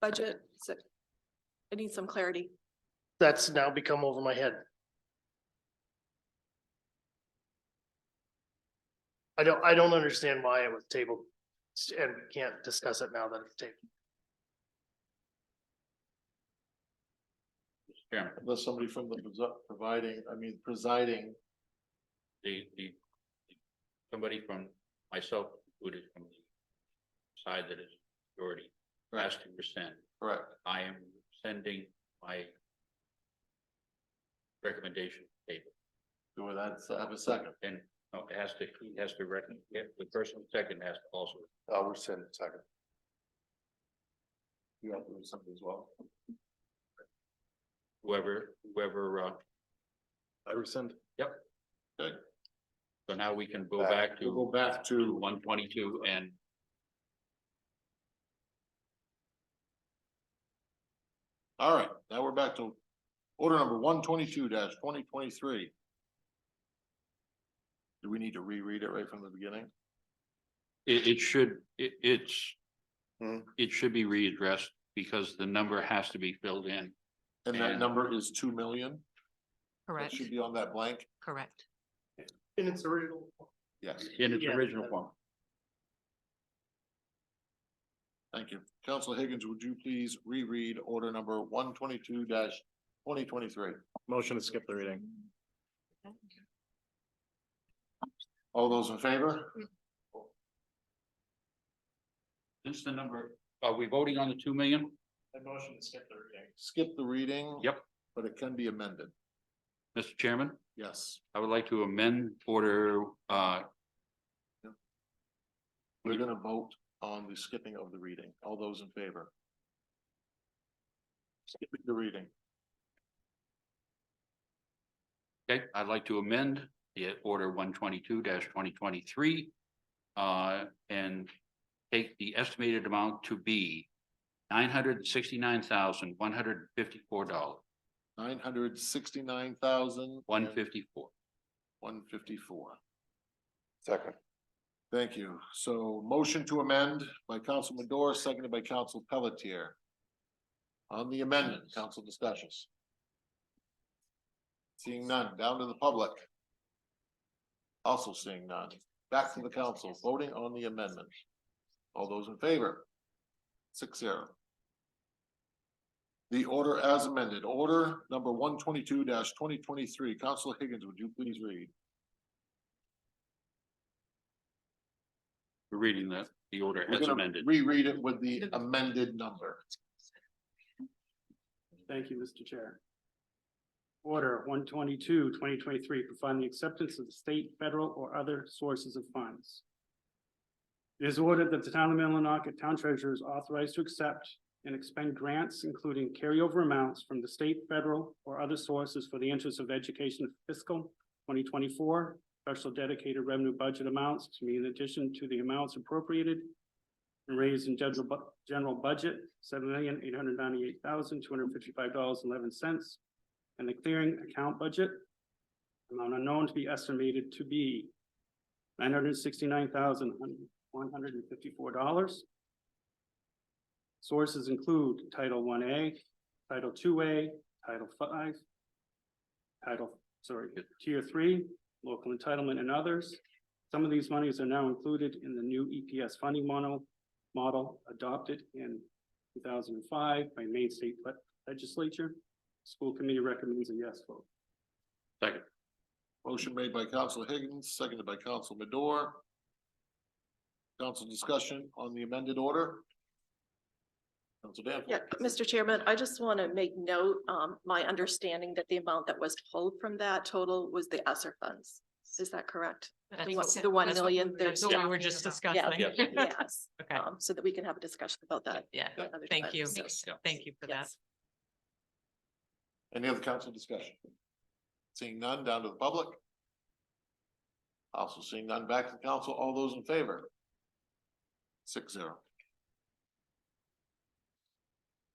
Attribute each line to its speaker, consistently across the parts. Speaker 1: budget? So I need some clarity.
Speaker 2: That's now become over my head. I don't, I don't understand why it was tabled s- and we can't discuss it now that it's tabled.
Speaker 3: Chairman,
Speaker 4: unless somebody from the presi- providing, I mean, presiding,
Speaker 3: the, the, somebody from myself, included from the side that is majority, has to rescind.
Speaker 4: correct?
Speaker 3: I am sending my recommendation table,
Speaker 4: Do we have have a second?
Speaker 3: and no, it has to, he has to reckon, yeah, the person second has to also.
Speaker 4: I will send a second. You have to do something as well.
Speaker 3: whoever, whoever, uh,
Speaker 4: I rescind.
Speaker 3: so now we can go back to.
Speaker 4: Go back to.
Speaker 3: One twenty-two and.
Speaker 4: All right, now we're back to order number one twenty-two twenty twenty-three. Do we need to reread it right from the beginning?
Speaker 3: It, it should, it, it's.
Speaker 4: Hmm.
Speaker 3: It should be readdressed because the number has to be filled in.
Speaker 4: And
Speaker 3: And-
Speaker 4: that number is two million? That
Speaker 5: Correct,
Speaker 4: should be on that blank?
Speaker 5: correct.
Speaker 2: In its original.
Speaker 4: Yes,
Speaker 3: In its
Speaker 2: Yeah.
Speaker 3: original form.
Speaker 4: thank you. Council Higgins, would you please reread order number one twenty-two twenty twenty-three?
Speaker 6: Motion to skip the reading.
Speaker 4: All those in favor?
Speaker 3: This is the number, are we voting on the two million?
Speaker 2: motion to skip the reading.
Speaker 4: Skip the reading.
Speaker 3: Yep.
Speaker 4: But it can be amended.
Speaker 3: Mr. Chairman,
Speaker 4: Yes.
Speaker 3: I would like to amend order, uh,
Speaker 4: We're gonna vote on the skipping of the reading. All those in favor? Skipping the reading.
Speaker 3: okay, I'd like to amend the order one twenty-two twenty twenty-three. Uh, and take the estimated amount to be nine hundred and sixty-nine thousand, one hundred and fifty-four dollars,
Speaker 4: Nine hundred sixty-nine thousand.
Speaker 3: one fifty-four.
Speaker 4: One fifty-four.
Speaker 6: Second.
Speaker 4: Thank you. So motion to amend by Council Madore, seconded by Council Pelletier. On the amendment, council discussions. Seeing none, down to the public. Also seeing none, back to the council, voting on the amendment. All those in favor? Six zero. The order as amended, order number one twenty-two twenty twenty-three, Council Higgins, would you please read?
Speaker 3: We're Reading the, the order
Speaker 4: We're
Speaker 3: as
Speaker 4: gonna
Speaker 3: amended.
Speaker 4: Reread it with the amended number.
Speaker 7: Thank you, Mr. Chair. Order 122, 2023, providing the acceptance of the state, federal, or other sources of funds. It is ordered that the town of Millinocket Town Treasurer is authorized to accept and expend grants, including carryover amounts from the state, federal, or other sources for the interest of education fiscal twenty twenty-four, special dedicated revenue budget amounts to be in addition to the amounts appropriated and raised in general bu- general budget, seven million, eight hundred ninety-eight thousand, two hundred fifty-five dollars, eleven cents. And the clearing account budget. Amount unknown to be estimated to be nine hundred sixty-nine thousand, one hundred and fifty-four dollars. Sources include Title One A, Title Two A, Title Five, Title, sorry, Tier Three, Local Entitlement and others. Some of these monies are now included in the new EPS funding model model adopted in two thousand and five by Maine State Le- Legislature. School committee recommends a yes vote.
Speaker 3: Second,
Speaker 4: Motion made by Council Higgins, seconded by Council Madore. Council discussion on the amended order. Council
Speaker 1: Yeah,
Speaker 4: Danforth,
Speaker 1: Mr. Chairman, I just want to make note, um, my understanding that the amount that was pulled from that total was the ESSER funds. Is that correct?
Speaker 5: That's
Speaker 1: The
Speaker 5: what-
Speaker 1: one- the one
Speaker 5: that's what we-
Speaker 1: million,
Speaker 5: That's what
Speaker 1: there's-
Speaker 5: we were just discussing.
Speaker 3: Yeah.
Speaker 1: Yes,
Speaker 5: Okay,
Speaker 1: um, so that we can have a discussion about that.
Speaker 5: yeah,
Speaker 1: another
Speaker 5: thank
Speaker 1: time,
Speaker 5: you,
Speaker 1: so-
Speaker 3: Yeah.
Speaker 5: thank you for that.
Speaker 1: Yes.
Speaker 4: any other council discussion? Seeing none, down to the public. Also seeing none, back to the council, all those in favor? Six zero.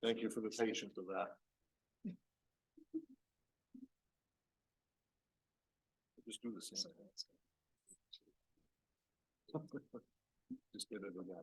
Speaker 4: Thank you for the patience of that. Just do the same. Just get it again.